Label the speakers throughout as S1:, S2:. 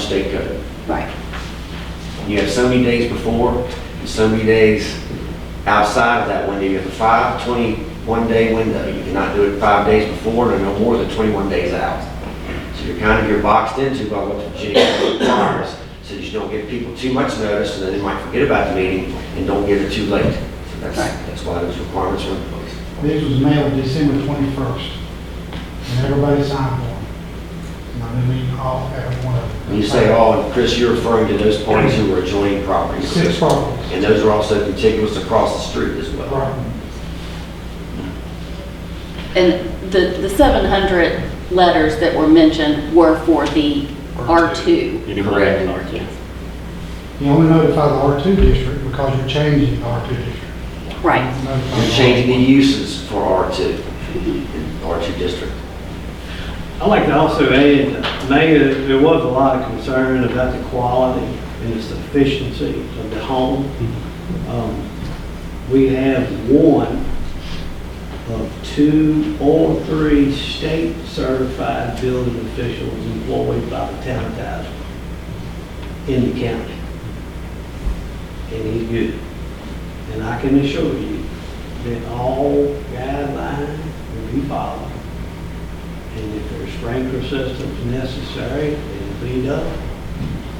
S1: state code.
S2: Right.
S1: You have so many days before, and so many days outside of that window. You have a five, 21 day window. You cannot do it five days before, and no more than 21 days out. So you're kind of, you're boxed into by what the GA requires, so that you don't give people too much notice, and then they might forget about the meeting and don't get it too late. So that's,
S2: Right.
S1: that's why those requirements are in place.
S3: These was mailed December twenty-first, and everybody signed one. And I mean, all, every one of them.
S1: When you say all, and Chris, you're referring to those parties who were adjoining properties.
S3: Six properties.
S1: And those are also contiguous across the street as well.
S3: Right,
S2: And the, the 700 letters that were mentioned were for the R2.
S4: You do more
S1: Correct.
S4: than R2.
S3: you only notify the R two district because you're changing the R two district.
S2: Right.
S3: Notify
S1: You're
S3: the
S1: changing the uses for R2, in R2 district.
S5: I'd like to also add, Mayor, there was a lot of concern about the quality and the sufficiency of the home. Um, We have one of two or three state-certified building officials employed by the town of Tazewell in the county. And he's good. And I can assure you that all guidelines will be followed. And if there's sprinkler systems necessary, it'll be done.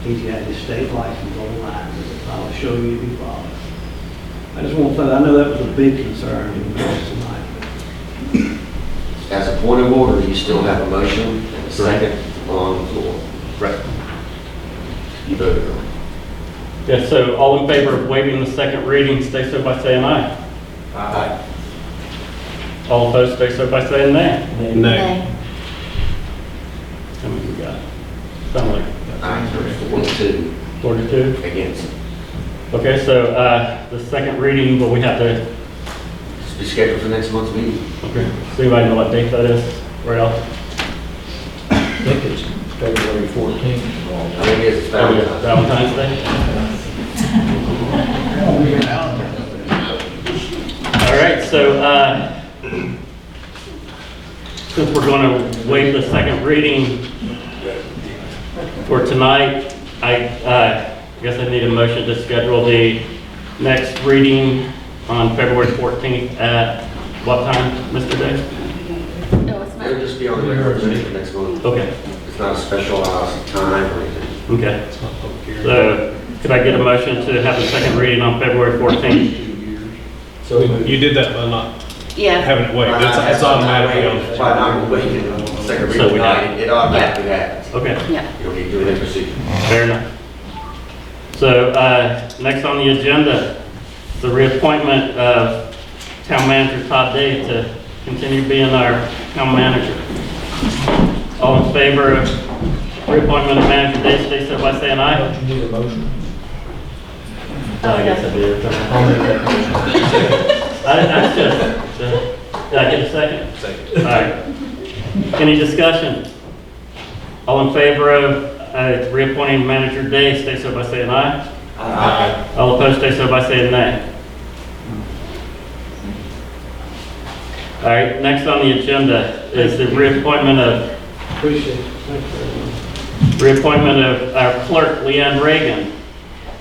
S5: He's got his state license online, but I'll show you if he follows. I just want to, say I know that was a big concern in the house tonight.
S1: As a point of order, you still have a motion and a second on the floor.
S4: Right.
S1: You voted on it.
S4: Yeah, so all in favor of waiving the second reading, stay so by saying aye.
S1: Aye.
S4: All opposed, stay so by saying nay.
S2: Nay.
S4: How many we got? Sound like
S1: Aye, there's four to two
S4: 42?
S1: against.
S4: Okay, so uh, the second reading, but we have to,
S1: It's be scheduled for next month's meeting.
S4: okay, does anybody know what date that is? Right off?
S6: I think it's February 14th.
S1: I think it's
S4: Oh, yeah,
S1: Valentine's.
S4: Valentine's Day? All right, so uh, since we're going to waive the second reading for tonight, I uh, guess I need a motion to schedule the next reading on February 14th at what time, Mr. Day?
S2: No, it's
S1: It'll
S2: not.
S1: just be on the regular agenda for next month.
S4: Okay,
S1: It's not a specialized time or anything.
S4: okay. So could I get a motion to have the second reading on February 14th?
S6: So moved.
S7: You did that by not
S2: Yeah.
S7: having it waived. That's, that's automatically on the
S1: By not waiting, second
S4: So
S1: reading,
S4: we
S1: tonight, it automatically happens.
S4: Okay.
S2: Yeah.
S1: You'll be doing it procedure.
S4: Fair enough. So, uh, next on the agenda, the reappointment of town manager Todd Day to continue being our town manager. All in favor of reappointment of manager Day, stay so by saying aye.
S6: Don't you need a motion?
S4: I guess I did. I, I should, did I get a second? Second. All right. Any discussion? All in favor of, uh, reappointing manager Day, stay so by saying aye.
S6: Uh,
S4: All opposed, stay so by saying nay. All right, next on the agenda is the reappointment of,
S5: Appreciate it. Thank you very much.
S4: reappointment of our clerk, Leanne Reagan.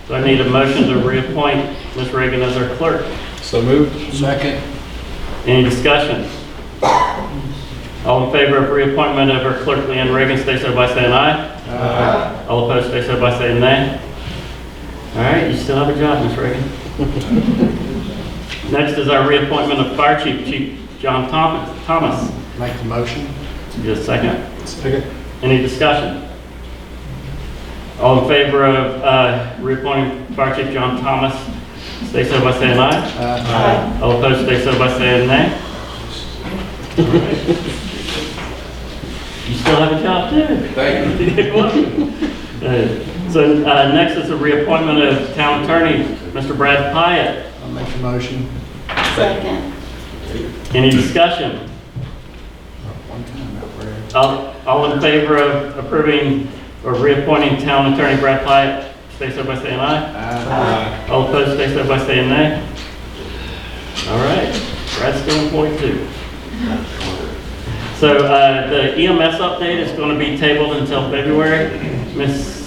S4: So I need a motion to reappoint Ms. Reagan as our clerk.
S7: So moved.
S4: Any discussion? All in favor of reappointment of our clerk, Leanne Reagan, stay so by saying aye. All opposed, stay so by saying nay. All right, you still have a job, Ms. Reagan. Next is our reappointment of Fire Chief, Chief John Thom- Thomas.
S3: Make the motion.
S4: Just a second.
S7: Second.
S4: Any discussion? All in favor of uh, reappointing Fire Chief John Thomas, stay so by saying aye.
S2: Aye.
S4: All opposed, stay so by saying nay. You still have a job too.
S1: Thank
S4: Uh, So uh, next is the reappointment of town attorney, Mr. Brad Pyatt.
S3: I'll make the motion.
S2: Second.
S4: Any discussion? All all in favor of approving or reappointing town attorney Brad Pyatt, stay so by saying aye. All opposed, stay so by saying nay. All right, Brad's still employed too. E So uh, the EMS update is going to be tabled until February. Ms.